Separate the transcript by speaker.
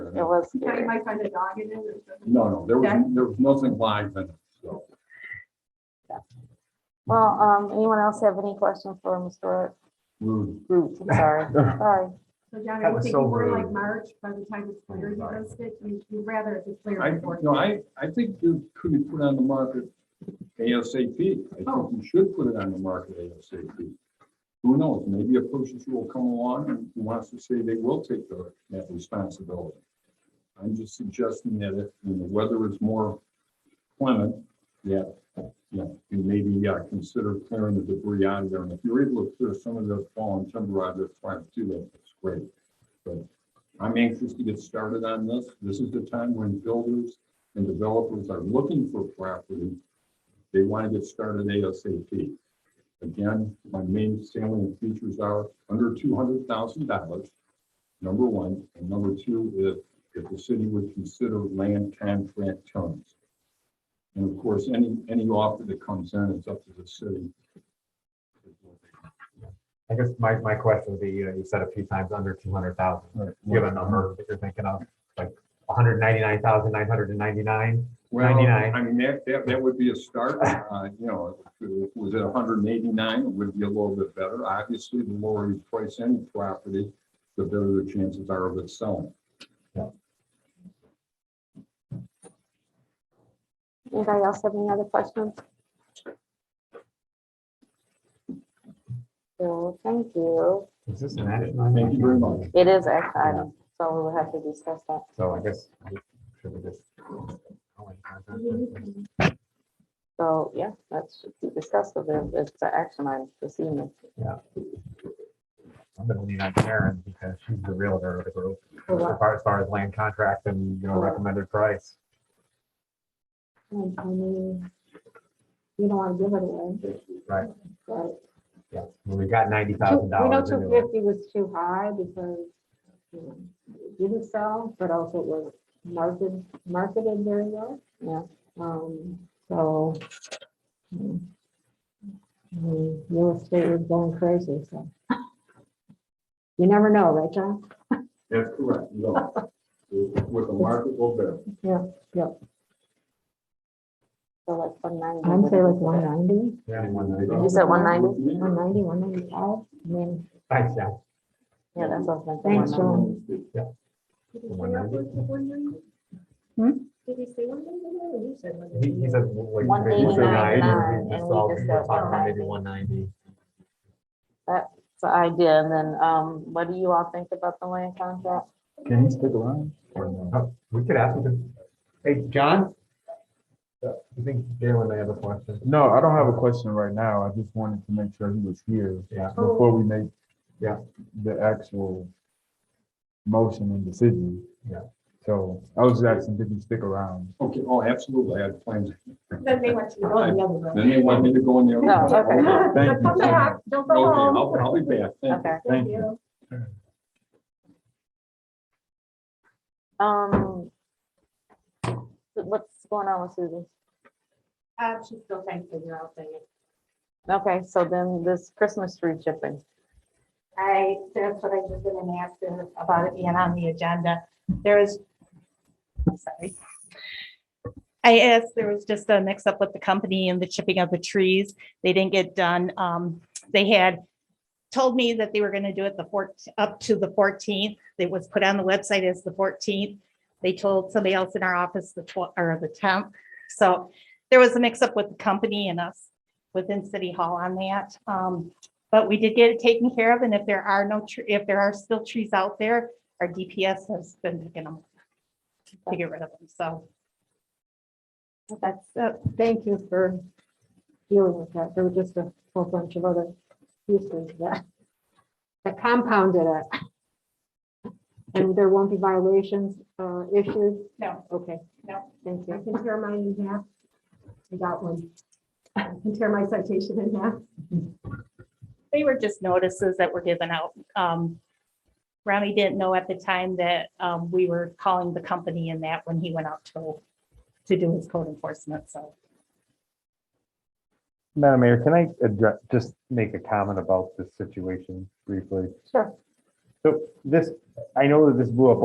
Speaker 1: it
Speaker 2: It was
Speaker 3: Now you
Speaker 2: scary.
Speaker 3: might find a dog in it or something.
Speaker 1: No, no, there was, there was nothing live in it, so.
Speaker 2: Well, um, anyone else have any questions for Mr.
Speaker 1: rude.
Speaker 2: Root? I'm sorry, sorry.
Speaker 3: So John,
Speaker 4: That
Speaker 3: I
Speaker 4: was
Speaker 3: think
Speaker 4: so
Speaker 3: we're
Speaker 4: rude.
Speaker 3: like March, by the time it's clear, you
Speaker 4: Sorry.
Speaker 3: post it, you- you'd rather it be clear.
Speaker 1: I,
Speaker 3: before-
Speaker 1: no, I, I think you could be put on the market ASAP. I think
Speaker 3: Oh.
Speaker 1: you should put it on the market ASAP. Who knows, maybe a purchaser will come along and wants to say they will take the- that responsibility. I'm just suggesting that if, when the weather is more clement, yeah, yeah, you maybe uh, consider clearing the debris out of there. And if you're able to clear some of those fallen timber out of there, try to do that, that's great. But I'm anxious to get started on this. This is the time when builders and developers are looking for property. They want to get started ASAP. Again, my main salient features are under two hundred thousand dollars, number one. And number two, if, if the city would consider land contract terms. And of course, any, any offer that comes in, it's up to the city.
Speaker 4: I guess my, my question would be, you know, you said a few times under two hundred thousand. Do you have a number that you're thinking of, like one hundred ninety-nine thousand nine hundred and ninety-nine?
Speaker 1: Well,
Speaker 4: 99.
Speaker 1: I mean, that, that, that would be a start, uh, you know, if it was at hundred and eighty-nine, it would be a little bit better. Obviously, the lower you price any property, the better the chances are of it selling.
Speaker 2: Anybody else have any other questions? So, thank you.
Speaker 4: Is this an action? item?
Speaker 1: Thank you very much.
Speaker 2: It is action item, so we will have to discuss that.
Speaker 4: So I guess, should we just?
Speaker 2: So, yeah, that's discussed, so there- it's an action item this evening.
Speaker 4: I'm gonna lean on Karen because she's the realtor of the group,
Speaker 2: For
Speaker 4: as
Speaker 2: what?
Speaker 4: far as far as land contract and, you know, recommended price.
Speaker 2: Mm, I mean, You don't want to give it away.
Speaker 4: Right.
Speaker 2: Right.
Speaker 4: Yeah, Well, we got ninety
Speaker 2: Two-
Speaker 4: thousand
Speaker 2: We know
Speaker 4: dollars.
Speaker 2: two fifty was too high because you know, it didn't sell, but also it was marketed, marketed very well. Yeah. Um, so. mm, I mean, Real estate was going crazy, so. You never know, right, John?
Speaker 1: That's correct, no. With a marketable bid.
Speaker 2: So like one ninety. I'd say like one ninety,
Speaker 4: Thanks,
Speaker 2: You said 190?
Speaker 1: Yeah.
Speaker 2: one ninety, one ninety-five, I mean.
Speaker 4: yeah.
Speaker 2: Yeah, that's what I'm
Speaker 1: Thanks,
Speaker 2: John.
Speaker 3: Did he
Speaker 4: One
Speaker 3: say
Speaker 4: number.
Speaker 3: what- one number?
Speaker 2: Hmm?
Speaker 3: Did he say one number or you said one
Speaker 4: He, he
Speaker 3: number?
Speaker 4: said. like,
Speaker 2: One
Speaker 4: maybe
Speaker 2: eighty nine
Speaker 4: 90,
Speaker 2: nine,
Speaker 4: we just
Speaker 2: and we
Speaker 4: all-
Speaker 2: just
Speaker 4: were
Speaker 2: said
Speaker 4: talking about Maybe
Speaker 2: 190.
Speaker 4: one ninety.
Speaker 2: So I did, and then, um, what do you all think about the land contract?
Speaker 4: Can you stick around? We could ask him, to- hey, John? I think Galen may have a question.
Speaker 5: No, I don't have a question right now. I just wanted to make sure he was here
Speaker 4: Yeah,
Speaker 5: before we make
Speaker 4: Yeah.
Speaker 5: the actual motion and decision.
Speaker 4: Yeah.
Speaker 5: So I was just asking, did he stick around?
Speaker 1: Okay, oh, absolutely, I had plans.
Speaker 3: Then they want you to go the other way.
Speaker 1: Then they want me to go in there.
Speaker 2: No, Oh, okay.
Speaker 1: Okay,
Speaker 5: Thank you.
Speaker 3: Come back, don't go
Speaker 1: I'll,
Speaker 3: home.
Speaker 1: I'll be back, thank you.
Speaker 2: Okay,
Speaker 5: Thank you.
Speaker 2: um, what's going on with Susan?
Speaker 3: Uh, she's still trying to figure out things.
Speaker 2: Okay, so then this Christmas tree shipping,
Speaker 3: I, that's what I was gonna ask her about it being on the agenda. There is, I'm sorry. I asked, there was just a mix up with the company and the chipping of the trees. They didn't get done. Um, they had told me that they were gonna do it the fourth, up to the fourteenth. It was put on the website as the fourteenth. They told somebody else in our office the twelfth or the tenth. So there was a mix up with the company and us within City Hall on that. Um, but we did get it taken care of, and if there are no, tr- if there are still trees out there, our DPS has been picking them up to get rid of them, so. That's, it.
Speaker 2: uh, thank you for dealing with that, there were just a whole bunch of other pieces that, that compounded it. And there won't be violations, uh, issued,
Speaker 3: no,
Speaker 2: okay.
Speaker 3: No.
Speaker 2: Thank
Speaker 3: I
Speaker 2: you,
Speaker 3: can tear mine in half. I got one. I can tear my citation in half.
Speaker 6: They were just notices that were given out. Um, Rami didn't know at the time that um, we were calling the company in that when he went out to, to do his code enforcement, so.
Speaker 4: Madam Mayor, can I address, just make a comment about this situation briefly?
Speaker 2: sure.
Speaker 4: So this, I know that this blew up